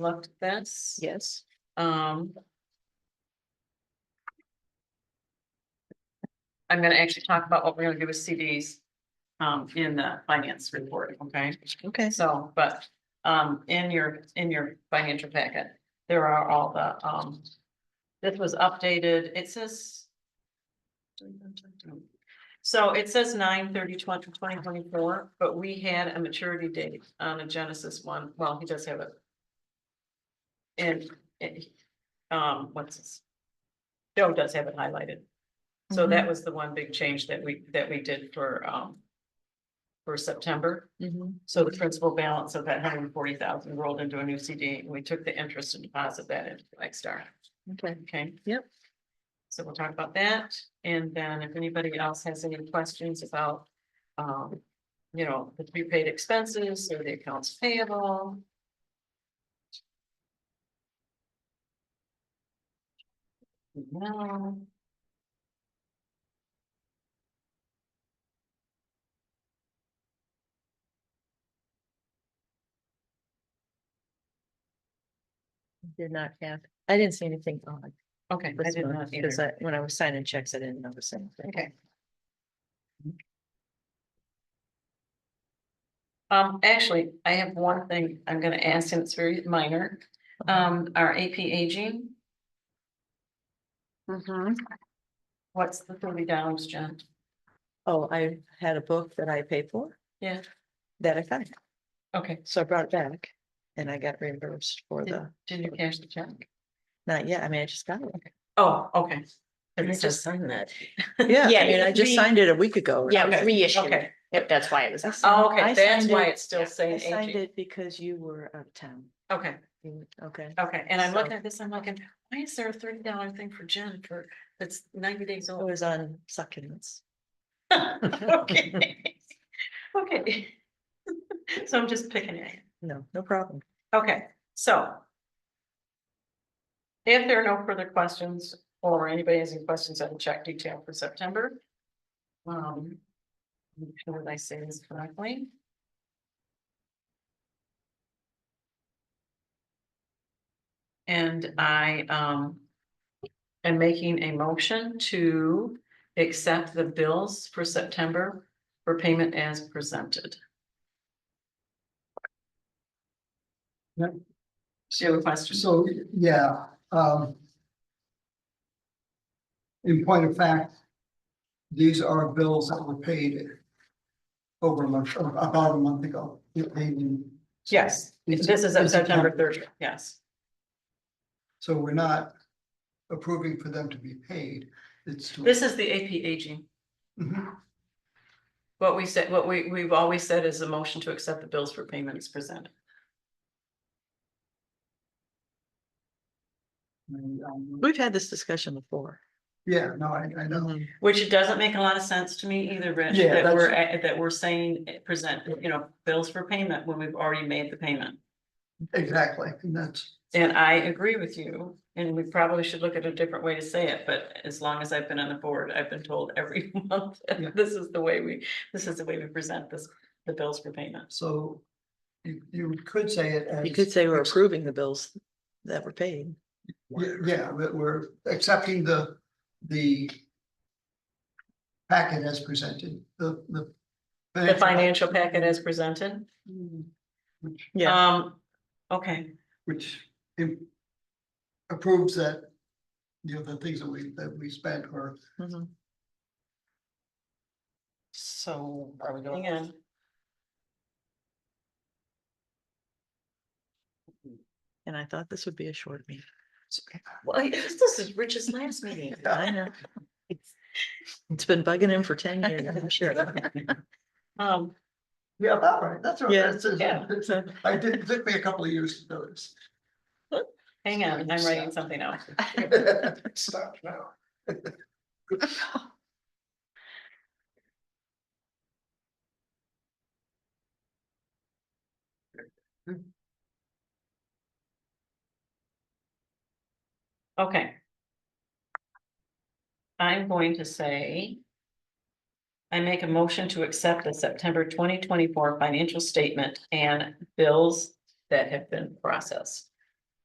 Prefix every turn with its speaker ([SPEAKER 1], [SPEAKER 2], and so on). [SPEAKER 1] looked at this.
[SPEAKER 2] Yes.
[SPEAKER 1] Um. I'm gonna actually talk about what we're gonna do with CDs um in the finance report, okay?
[SPEAKER 2] Okay.
[SPEAKER 1] So, but um in your, in your financial packet, there are all the um. This was updated, it says. So it says nine thirty twenty twenty twenty four, but we had a maturity date on a Genesis one, well, he does have it. And it, um, what's this? Joe does have it highlighted. So that was the one big change that we, that we did for, um. For September,
[SPEAKER 2] Mhm.
[SPEAKER 1] so the principal balance of that hundred and forty thousand rolled into a new CD, and we took the interest and deposit that into Blackstar,
[SPEAKER 2] Okay.
[SPEAKER 1] okay?
[SPEAKER 2] Yep.
[SPEAKER 1] So we'll talk about that, and then if anybody else has any questions about, um. You know, the prepaid expenses or the accounts payable, no.
[SPEAKER 2] Did not have, I didn't see anything odd.
[SPEAKER 1] Okay, I
[SPEAKER 2] this
[SPEAKER 1] did
[SPEAKER 2] month,
[SPEAKER 1] not either.
[SPEAKER 2] Because I, when I was signing checks, I didn't notice anything.
[SPEAKER 1] Okay. Um, actually, I have one thing I'm gonna ask, and it's very minor,
[SPEAKER 2] Uh-huh.
[SPEAKER 1] um, our AP aging,
[SPEAKER 2] Mm-hmm.
[SPEAKER 1] what's the thirty dollars, Jen?
[SPEAKER 2] Oh, I had a book that I paid for.
[SPEAKER 1] Yeah.
[SPEAKER 2] That I found,
[SPEAKER 1] Okay,
[SPEAKER 2] so I brought it back and I got reimbursed for the,
[SPEAKER 1] did you cash the check?
[SPEAKER 2] not yet, I mean, I just got it.
[SPEAKER 1] Oh, okay.
[SPEAKER 3] And
[SPEAKER 1] It
[SPEAKER 3] I
[SPEAKER 1] says-
[SPEAKER 3] just signed that.
[SPEAKER 2] Yeah,
[SPEAKER 3] Yeah,
[SPEAKER 2] I mean,
[SPEAKER 3] it
[SPEAKER 2] I
[SPEAKER 3] was
[SPEAKER 2] just
[SPEAKER 3] re-
[SPEAKER 2] signed it a week ago.
[SPEAKER 3] Yeah, it was
[SPEAKER 1] Okay,
[SPEAKER 3] reissued.
[SPEAKER 1] okay.
[SPEAKER 3] Yep, that's why it was.
[SPEAKER 2] I
[SPEAKER 3] I
[SPEAKER 2] signed-
[SPEAKER 1] Oh, okay,
[SPEAKER 2] I
[SPEAKER 1] that's
[SPEAKER 2] signed
[SPEAKER 1] why
[SPEAKER 2] it-
[SPEAKER 1] it's still
[SPEAKER 2] I
[SPEAKER 1] saying
[SPEAKER 2] signed
[SPEAKER 1] aging,
[SPEAKER 2] it because you were out of town.
[SPEAKER 1] okay,
[SPEAKER 2] You- Okay,
[SPEAKER 1] okay, and I'm
[SPEAKER 2] So-
[SPEAKER 1] looking at this, I'm like, why is there a thirty dollar thing for Jen for, that's ninety days
[SPEAKER 2] it
[SPEAKER 1] old?
[SPEAKER 2] was on succulents.
[SPEAKER 1] Okay. Okay. So I'm just picking it.
[SPEAKER 2] No, no problem.
[SPEAKER 1] Okay, so. If there are no further questions or anybody has any questions on the check detail for September. Um. make sure that I say this correctly? And I, um. Am making a motion to accept the bills for September for payment as presented. Do you have a question?
[SPEAKER 4] So, yeah, um. In point of fact, these are bills that were paid over a month, about a month ago. They're paid in-
[SPEAKER 1] Yes,
[SPEAKER 4] It's-
[SPEAKER 1] this is at
[SPEAKER 4] it's
[SPEAKER 1] September
[SPEAKER 4] September.
[SPEAKER 1] thirtieth, yes.
[SPEAKER 4] So we're not approving for them to be paid. It's. to-
[SPEAKER 1] This is the AP aging.
[SPEAKER 4] Mhm.
[SPEAKER 1] What we said, what we, we've always said is a motion to accept the bills for payments presented.
[SPEAKER 4] And, um,
[SPEAKER 2] We've had this discussion before.
[SPEAKER 4] Yeah, no, I, I know.
[SPEAKER 1] Which it doesn't make a lot of sense to me either, Rich,
[SPEAKER 4] Yeah,
[SPEAKER 1] that we're, at- that we're saying eh, present, you know, bills for payment when we've already made the payment.
[SPEAKER 4] Exactly. And that's,
[SPEAKER 1] And I agree with you, and we probably should look at a different way to say it, but as long as I've been on the board, I've been told every month,
[SPEAKER 4] Yeah.
[SPEAKER 1] this is the way we, this is the way we present this, the bills for payments.
[SPEAKER 4] so you, you could say it as.
[SPEAKER 2] You could say we're approving the bills that were paid.
[SPEAKER 4] Yeah, Yeah, but we're accepting the, the packet as presented, the, the.
[SPEAKER 1] The financial packet as presented,
[SPEAKER 4] Which,
[SPEAKER 2] Yeah,
[SPEAKER 1] um, okay.
[SPEAKER 4] which im- approves that, you know, the things that we, that we spent or
[SPEAKER 2] mhm.
[SPEAKER 1] So are we going? Hang on.
[SPEAKER 2] and I thought this would be a short meeting.
[SPEAKER 1] Well, I- this is Rich's last meeting.
[SPEAKER 2] I know. It's been bugging him for ten years, I'm sure.
[SPEAKER 1] Um,
[SPEAKER 4] Yeah, all right, that's all right.
[SPEAKER 2] Yeah.
[SPEAKER 4] That's-
[SPEAKER 1] Yeah.
[SPEAKER 4] that's- I did, it took me a couple of years to notice.
[SPEAKER 1] hang on, I'm writing something out.
[SPEAKER 4] Stop now.
[SPEAKER 1] Okay. I'm going to say. I make a motion to accept the September twenty twenty-four financial statement and bills that have been processed.